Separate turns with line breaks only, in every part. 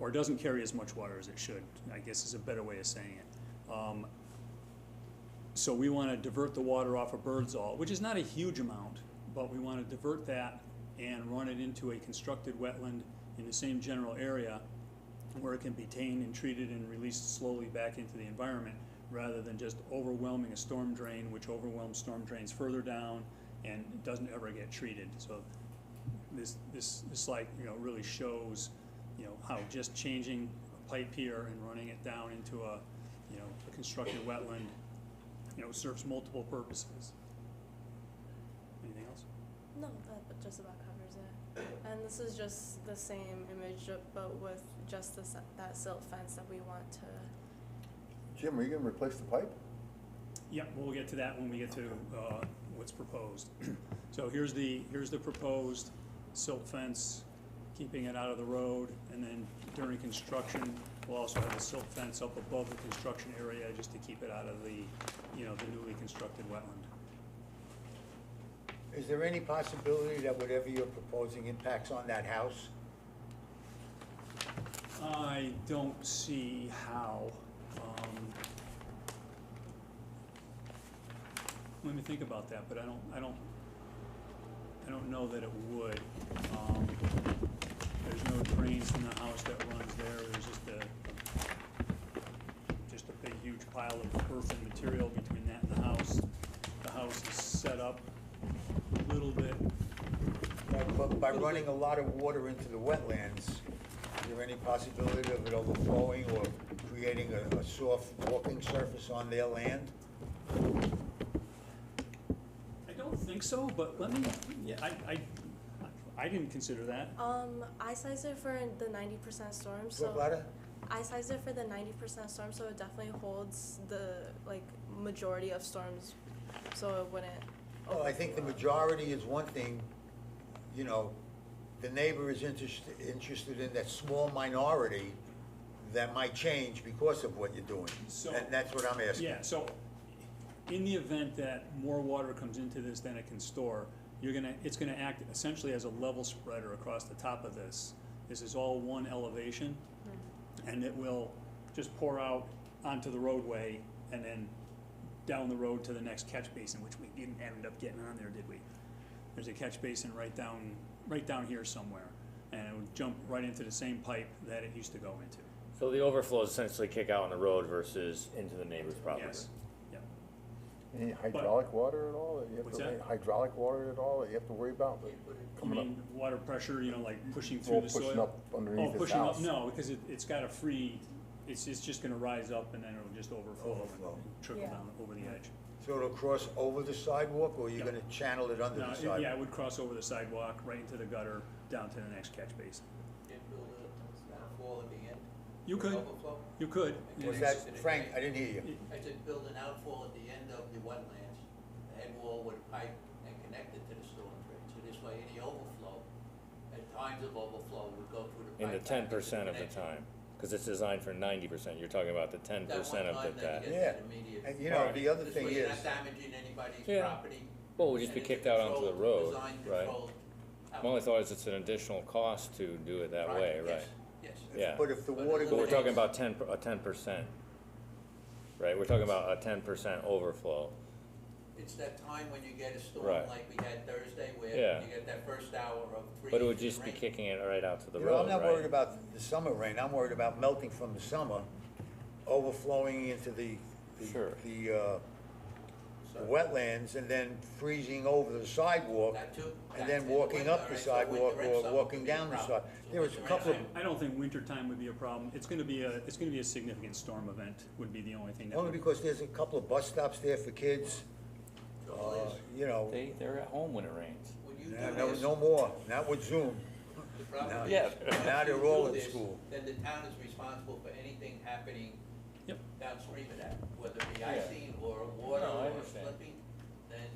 or doesn't carry as much water as it should, I guess is a better way of saying it. Um, So we want to divert the water off of Birdsall, which is not a huge amount, but we want to divert that and run it into a constructed wetland in the same general area where it can be tamed and treated and released slowly back into the environment, rather than just overwhelming a storm drain, which overwhelms storm drains further down and doesn't ever get treated. So this, this, this slide, you know, really shows, you know, how just changing a pipe here and running it down into a, you know, a constructed wetland, you know, serves multiple purposes. Anything else?
No, that but just about covers it. And this is just the same image, ju- but with just the, se- that silt fence that we want to.
Jim, are you gonna replace the pipe?
Yeah, we'll get to that when we get to uh, what's proposed. So here's the, here's the proposed silt fence, keeping it out of the road, and then during construction, we'll also have a silt fence up above the construction area just to keep it out of the, you know, the newly constructed wetland.
Is there any possibility that whatever you're proposing impacts on that house?
I don't see how. um, Let me think about that, but I don't, I don't, I don't know that it would. Um, There's no drains from the house that runs there, there's just a, just a big huge pile of earth and material between that and the house. The house is set up a little bit,
By- But by running a lot of water into the wetlands, is there any possibility of it overflowing or creating a, a soft walking surface on their land?
I don't think so, but let me, yeah, I, I, I didn't consider that.
Um, I sized it for the ninety percent storm,
What
so.
about
I sized it for the ninety percent storm, so it definitely holds the, like, majority of storms, so it wouldn't.
Well, I think the
overflow.
majority is one thing, you know, the neighbor is interested, interested in that small minority that might change because of what you're doing.
So-
And that's what I'm asking.
Yeah, so in the event that more water comes into this than it can store, you're gonna, it's gonna act essentially as a level spreader across the top of this. This is all one elevation, and it will just pour out onto the roadway and then down the road to the next catch basin, which we didn't end up getting on there, did we? There's a catch basin right down, right down here somewhere, and it would jump right into the same pipe that it used to go into.
So the overflows essentially kick out on the road versus into the neighbor's property?
Yes, yep.
Any hydraulic water at all? that you have to
What's
worry-
that?
Hydraulic water at all that you have to worry about?
You
Coming up.
mean water pressure, you know, like pushing
Or
through the soil?
pushing up underneath
Oh,
his
pushing up,
house.
no, because it, it's got a free, it's, it's just gonna rise up and then it'll just overflow
Overflow.
and trickle
Yeah.
down over the edge.
So it'll cross over the sidewalk, or you're
Yeah.
gonna channel it under
No,
the
it-
sidewalk?
yeah, it would cross over the sidewalk, right into the gutter, down to the next catch basin.
and build a outfall at the end?
You
for
could.
Overflow?
You could,
Was that, Frank, I didn't hear you.
I said build an outfall at the end of the wetlands, the head wall with a pipe and connect it to the storm drain. So this way, any overflow, at times of overflow, would go through the
In
pipe.
the ten percent of the
connection.
time, because it's designed for ninety percent, you're talking about the ten
That one
percent of
time
the,
that you
that.
get
Yeah,
that immediate-
and you know, the other
This
thing
way you're
is,
not damaging anybody's
Yeah.
property.
Well, it would just
and
be
it's
kicked out onto the
controlled,
road,
design
right?
controlled
My only thought is it's an additional cost to do it that
outfall.
way,
Yes,
right?
Yes.
Yeah.
but if the
But
water
it
But we're
goes,
talking about ten, per- a ten percent, right? We're talking about a ten percent overflow.
It's that time when you get a storm
Right.
like we had Thursday where
Yeah.
you get that first hour of three
But it would
inches
just
of
be
rain.
kicking it right out to the
you know,
road,
I'm not worried
right?
about the summer rain, I'm worried about melting from the summer, overflowing into the, the-
Sure.
the, uh, the wetlands, and then freezing over the sidewalk,
That too.
and
That's in
then walking up
winter,
the
right? So winter
sidewalk,
and
or
summer
walking
would be
down the
a
side.
problem. So
There was a
winter and
couple of,
summer.
I don't think wintertime would be a problem, it's gonna be a, it's gonna be a significant storm event, would be the only thing that
only
would.
because there's a couple of bus stops there for kids,
So
uh,
Liz,
you know,
They, they're at home when it rains.
When you
no,
do
no-
this,
no more, not with Zoom.
the problem
Yeah.
is, once
Now they're
you do
all in
this,
school.
Then the town is responsible for anything happening
Yep.
downstream of that, whether it be
Yeah.
icing or water
No, I
or
understand.
slipping, then,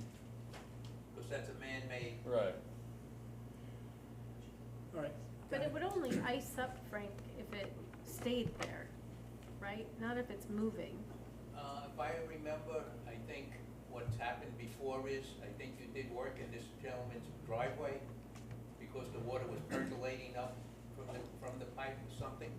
because that's a man-made
Right.
All right,
But it would only ice up, Frank, if it stayed there, right? Not if it's moving.
Uh, if I remember, I think what's happened before is, I think you did work in this gentleman's driveway because the water was percolating up from the, from the pipe or something.